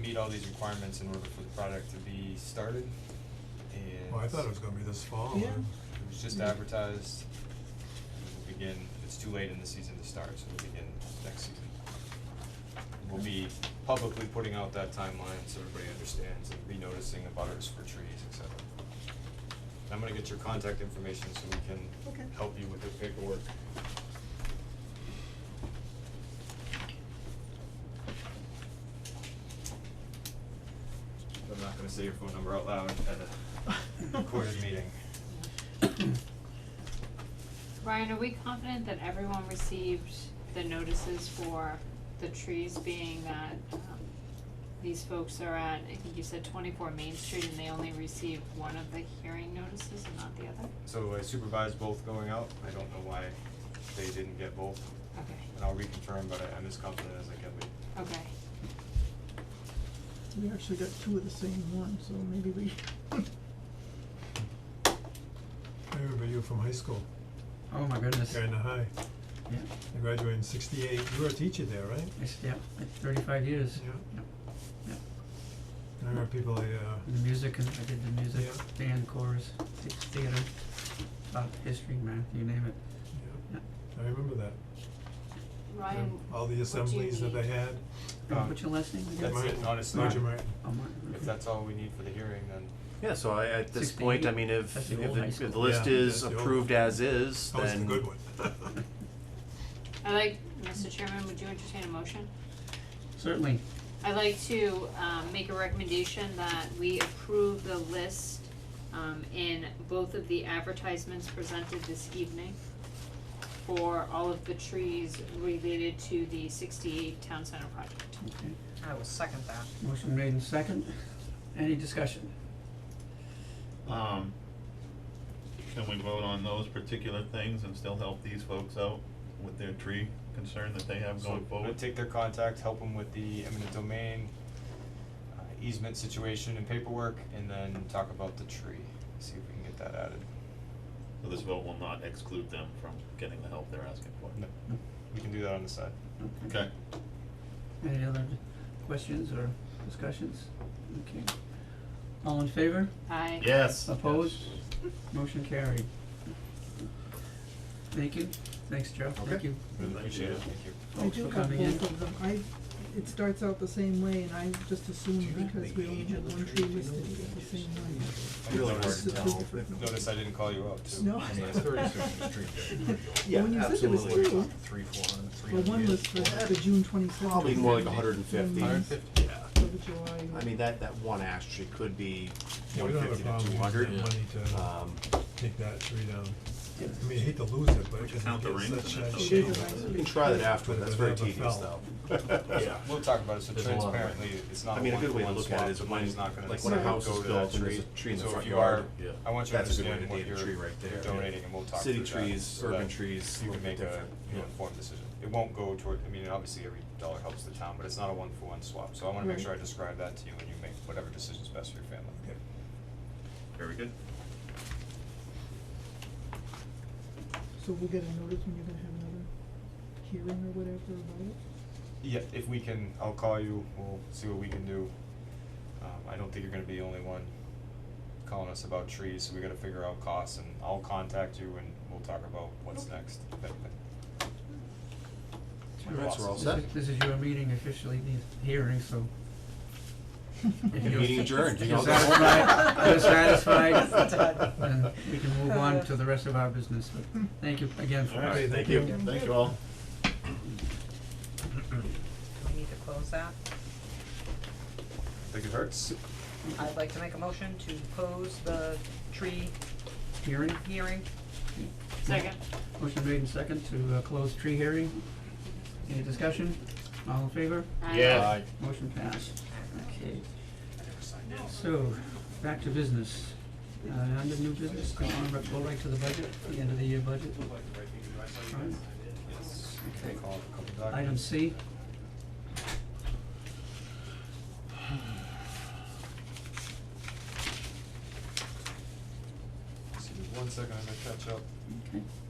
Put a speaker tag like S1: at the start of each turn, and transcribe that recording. S1: meet all these requirements in order for the project to be started, and.
S2: Well, Oh, I thought it was gonna be this fall.
S1: Yeah. It was just advertised, and we'll begin, it's too late in the season to start, so we'll begin next season. We'll be publicly putting out that timeline so everybody understands and re-noticing the butters for trees, et cetera. And I'm gonna get your contact information so we
S3: Okay.
S1: can help you with the paperwork. I'm not gonna say your phone number out loud at a recorded meeting.
S4: Ryan, are we confident that everyone received the notices for the trees being that, um, these folks are at, I think you said twenty-four Main Street and they only received one of the hearing notices and not the other?
S1: So I supervised both going out, I don't know why they didn't get both, and
S4: Okay,
S1: I'll reconfirm, but I- I'm as confident as I can be.
S4: okay,
S3: We actually got two of the same one, so maybe we,
S2: I remember you from high school,
S5: Oh my goodness.
S2: Gardner High.
S5: Yeah.
S2: You graduated in sixty-eight, you were a teacher there, right?
S5: It's, yeah, it's thirty-five years.
S2: Yeah.
S5: Yep.
S2: I remember people, they, uh,
S5: And the music, and I did the music,
S2: Yeah.
S5: band, chorus, the- theater, art, history, math, you name it.
S2: yeah,
S5: Yeah.
S2: I remember that.
S4: Ryan,
S2: Yeah. All the assemblies that they
S4: need?
S2: had.
S5: And
S1: Um,
S5: what's your last name again?
S1: That's
S2: Martin-
S1: it, honestly,
S2: Roger Martin.
S5: Oh, Martin,
S1: if
S5: okay.
S1: that's all we need for the hearing, then
S6: Yeah, so I, at this
S5: 16,
S6: point, I mean, if,
S5: that's
S6: if,
S5: the old high
S6: it- if
S5: school.
S6: the list
S2: Yeah,
S6: is
S2: that's the old-
S6: approved as is,
S2: That was the
S6: then
S2: good one.
S4: I like, Mr. Chairman, would you entertain a motion?
S5: Certainly,
S4: I'd like to um make a recommendation that we approve the list um in both of the advertisements presented this evening for all of the trees related to the sixty-eight town center project.
S5: okay.
S7: I will second that.
S5: Motion made in second. Any discussion?
S8: Um, can we vote on those particular things and still help these folks out with their tree concern that they have
S1: so
S8: going
S1: I'm gonna
S8: forward?
S1: take their contact, help them with the eminent domain, uh, easement situation and paperwork, and then talk about the tree, see if we can get that added.
S8: So this vote will not exclude them from getting the help they're asking for?
S1: No, we can do that on the side.
S8: Okay.
S5: Any other d- questions or discussions? Okay. All in favor?
S4: I
S8: Yes.
S5: Opposed?
S8: Yes.
S5: Motion carried. Thank you. Thanks, Joe. Thank
S1: Okay.
S5: you.
S8: Thank
S1: Appreciate
S8: you.
S1: it, thank you.
S3: I
S5: Thanks
S3: do
S5: for
S3: have
S5: coming in.
S3: both of them, I, it starts out the same way, and I just
S9: Do
S3: assumed
S9: you have
S3: because
S9: the
S3: we only
S9: age
S3: had
S9: of the
S3: one
S9: tree?
S3: tree
S9: Do you know
S3: listed,
S9: the
S3: we got the
S9: ages?
S3: same one.
S1: I noticed-
S3: This is
S6: hard
S3: two
S6: to
S3: different ones.
S1: Notice I didn't call you out too.
S3: No.
S1: I mean,
S9: Yeah,
S1: it's
S9: thirty
S1: thirty.
S9: cents a tree, yeah, there you go.
S6: Yeah,
S3: When you said there was
S6: absolutely.
S3: two,
S9: Three, four hundred, three
S3: well,
S9: hundred.
S3: one was for the June twenty-seventh.
S6: probably more like hundred and fifty.
S3: Hundred and
S6: fifty. Yeah,
S3: For the July.
S6: I mean, that, that one ash tree could be
S2: Yeah,
S6: one
S2: we don't have
S6: fifty
S2: a
S6: to
S2: problem
S6: two hundred.
S2: using that money to
S6: Um,
S2: take that tree down. I mean, I hate to lose it, but
S8: We
S2: it
S8: can count the
S2: gets
S8: rings
S2: such
S8: and
S2: a
S8: that's
S2: shape.
S3: okay.
S6: we can try that after,
S2: But
S6: that's
S2: it
S6: very
S2: never
S6: tedious
S2: fell.
S6: though. Yeah.
S1: We'll talk about it, so
S6: There's a lot of
S1: transparently, it's not
S6: I
S1: a
S6: mean, a
S1: one
S6: good
S1: for
S6: way to
S1: one
S6: look at
S1: swap,
S6: it is
S1: the
S6: when,
S1: money's not gonna
S6: like when a house is
S1: go to
S6: built
S1: that
S6: and there's
S1: tree.
S6: a tree in the
S1: So if
S6: front
S1: you are,
S6: yard, yeah,
S1: I want you to
S6: that's a good way
S1: understand
S6: to
S1: what
S6: date a tree
S1: you're
S6: right there.
S1: donating and we'll talk through
S6: City
S1: that.
S6: trees,
S1: so
S6: urban
S1: that
S6: trees,
S1: You
S6: a
S1: can
S6: little
S1: make
S6: bit
S1: a,
S6: different.
S1: you know,
S6: Yeah.
S1: informed decision. It won't go toward, I mean, obviously every dollar helps the town, but it's not a one for one swap, so I wanna make
S3: Right.
S1: sure I describe that to you when you make whatever decision's best for your family.
S8: Very good.
S3: So we'll get a notice when you're gonna have another hearing or whatever about it?
S1: Yeah, if we can, I'll call you, we'll see what we can do. Um, I don't think you're gonna be the only one calling us about trees, so we gotta figure out costs and I'll contact you and we'll talk about what's next. That- that-
S6: Alright, so we're all
S5: This
S6: set.
S5: is- This is your meeting officially, the hearing, so if you're.
S6: Meeting adjourned, you
S5: if you're
S6: know.
S5: satisfied, if you're satisfied,
S3: Done.
S5: then we can move on to the rest of our business, but thank you again for.
S8: All right,
S2: thank
S8: thank
S2: you.
S8: you. Thank you all.
S7: Do we need to close that?
S1: Think it hurts?
S7: I'd like to make a motion to close the tree
S5: Hearing,
S7: hearing.
S4: second.
S5: motion made in second to uh, close tree hearing. Any discussion? All in favor?
S4: I-
S8: Yes.
S5: Motion passed. Okay. So, back to business. Uh, under new business, go on, go right to the budget, the end of the year budget. Right. Okay.
S1: Call a couple documents.
S5: Item C.
S1: Excuse me one second, I'm gonna catch up.
S5: Okay.